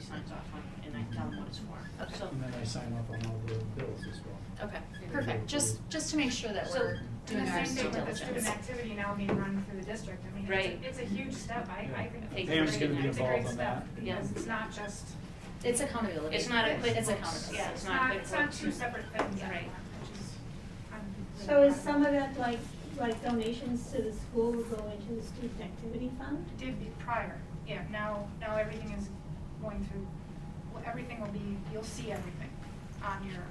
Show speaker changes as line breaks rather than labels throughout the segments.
signs off on, and I tell them what it's for,
Okay.
so.
And then I sign off on all the bills as well.
Okay, perfect, just, just to make sure that
So,
we're
do
doing
the
our
same
due
thing
diligence.
with the
student activity now being run through the district, I mean,
Right.
it's, a- it's a huge step, I, I think.
Hey,
it's
Pam's
great.
gonna be
It's a great
involved on
step,
that.
Because it's not just,
It's accountability.
It's not a quick
It's
fix,
accountability.
yeah.
it's
not
not,
quick
it's not
work.
two separate things
Right.
anymore, which is, I'm really
So is
proud
some of that like, like donations to the school will go into the student activity fund?
Did be prior, yeah, now, now everything is going through, well, everything will be, you'll see everything on your.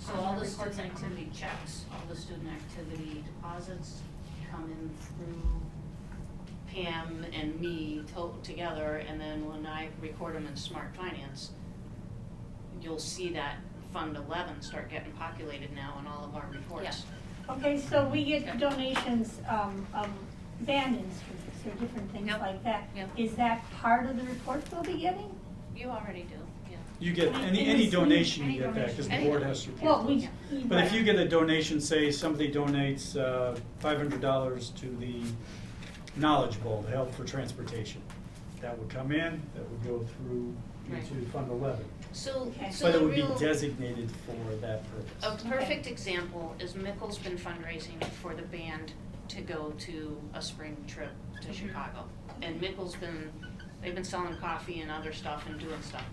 So
on
all the
reports
student
that come in.
activity checks, all the student activity deposits come in through Pam and me to- together, and then when I record them in Smart Finance, you'll see that Fund Eleven start getting populated now in all of our reports.
Okay, so we
Yeah.
get donations, um, of band instruments or different things
Yep.
like that.
Yep.
Is that part of the report we'll be getting?
You already do, yeah.
You get,
Any-
any,
any
any
student-
donation
any
you get back, because the
donation.
board has to report.
Well, we.
Yeah.
But if you get a donation, say somebody donates uh, $500 to the Knowledge Bowl to help for transportation, that would come in, that would go through
Right.
into Fund 11.
So,
Okay.
so
But
the
it would be
real-
designated for that
A
purpose.
perfect example is Mickle's been fundraising for the band to go to a spring trip to Chicago. And Mickle's been, they've been selling coffee and other stuff and doing stuff.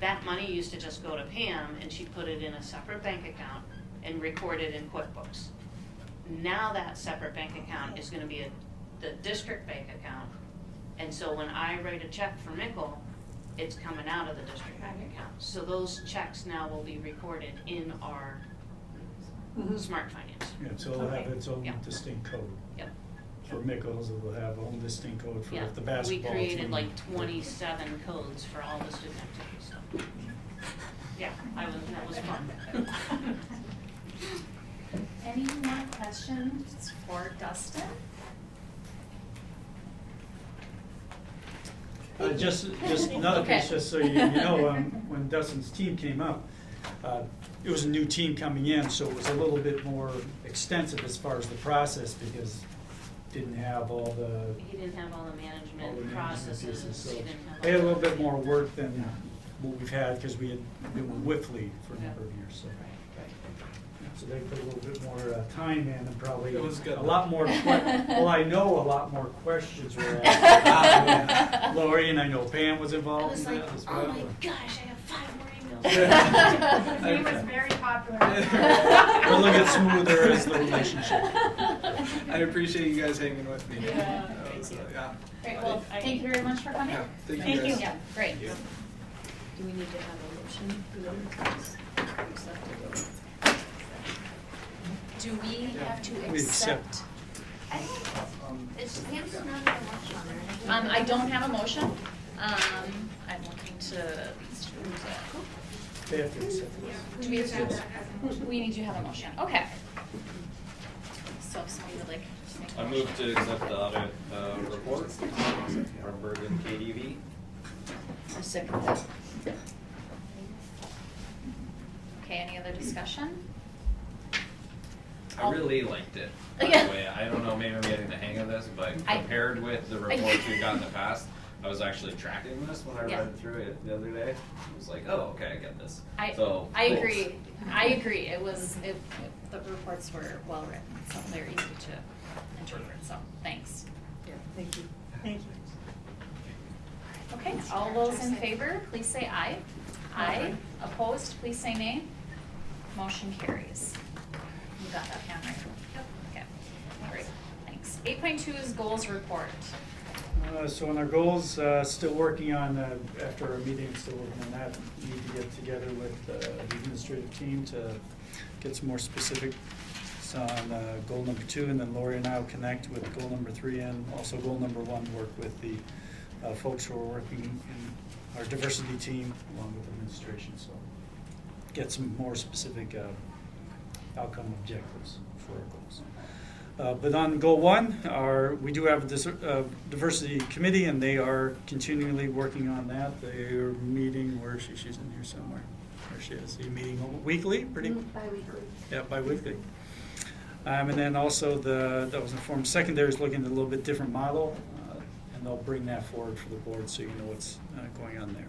That money used to just go to Pam and she put it in a separate bank account and record it in QuickBooks. Now that separate bank account is gonna be a, the district bank account. And so when I write a check for Mickle, it's coming out of the district bank account. So those checks now will be recorded in our
Mhm.
smart finance.
Yeah, so it'll have
Okay.
its own
Yeah.
distinct code.
Yep.
For Mickles, it will have own distinct code for
Yeah.
if the basketball team.
We created like twenty-seven codes for all the student activities, so. Yeah, I was, that was fun.
Any more questions for Dustin?
Uh, just, just another
Okay.
piece, just so you, you know, um, when Dustin's team came up, uh, it was a new team coming in, so it was a little bit more extensive as far as the process, because didn't have all the,
He didn't have all the
all the
management
management
processes,
pieces, so.
he didn't have.
They had a
all
little
that.
bit more work than what we've had, because we had been with Whitley for a
Yeah.
number of years, so.
Right, right.
So they put a little bit more uh, time in and probably
It was good.
a lot more, que- well, I know a lot more questions were asked. Lori and I know Pam was
I
involved
was
in
like,
that as well.
oh my gosh, I have five more emails.
Yeah.
His name was very popular.
We'll look at smoother as the relationship.
I appreciate you guys hanging with me.
Yeah,
That
thank
was,
you.
uh, yeah.
Great, well, thank you very much for coming.
Yeah, thank you
Thank
guys.
you.
Yeah, great.
Thank you.
Do we need to have a motion? for those? Accepted.
Do we have to
We accept.
accept?
um,
It's, Pam's not gonna watch on there.
Um, I don't have a motion. Um, I'm looking to, these two,
They have to accept this.
do we have
That-
to?
that hasn't-
We need to have a motion, okay. So if somebody would like to make a
I
motion.
move to accept the audit uh, report from Bergen KDV.
A second that. Okay, any other discussion?
I really liked it, by
Oh. Yeah.
the way. I don't know, maybe I'm getting the hang of this, but
I-
compared with the reports we've got in the past, I was actually tracking this when I
Yeah.
read through it the other day. I was like, oh, okay, I get this.
I,
So,
I
thanks.
agree, I agree, it was, it, the reports were well written, so they're easy to interpret, so, thanks.
Yeah, thank you.
Thank you.
Okay, all those in favor, please say aye. Aye. Opposed, please say nay. Motion carries. You got that, Pam, right? Yep. Okay, great, thanks. Eight point two is goals report.
Uh, So on our goals, uh, still working on, uh, after our meeting, still working on that. Need to get together with uh, the administrative team to get some more specifics on uh, goal number two. And then Lori and I will connect with goal number three and also goal number one, work with the uh, folks who are working in our diversity team along with administration. So get some more specific uh, outcome objectives for our goals. Uh, But on goal one, our, we do have a dis- uh, diversity committee, and they are continually working on that. They're meeting, where is she? She's in here somewhere. There she is. They're meeting weekly, pretty,
Mm-hmm.
Bi-weekly.
yeah, bi-weekly. Um, And then also the, that was informed, secondary is looking at a little bit different model, uh, and they'll bring that forward for the board so you know what's uh, going on there.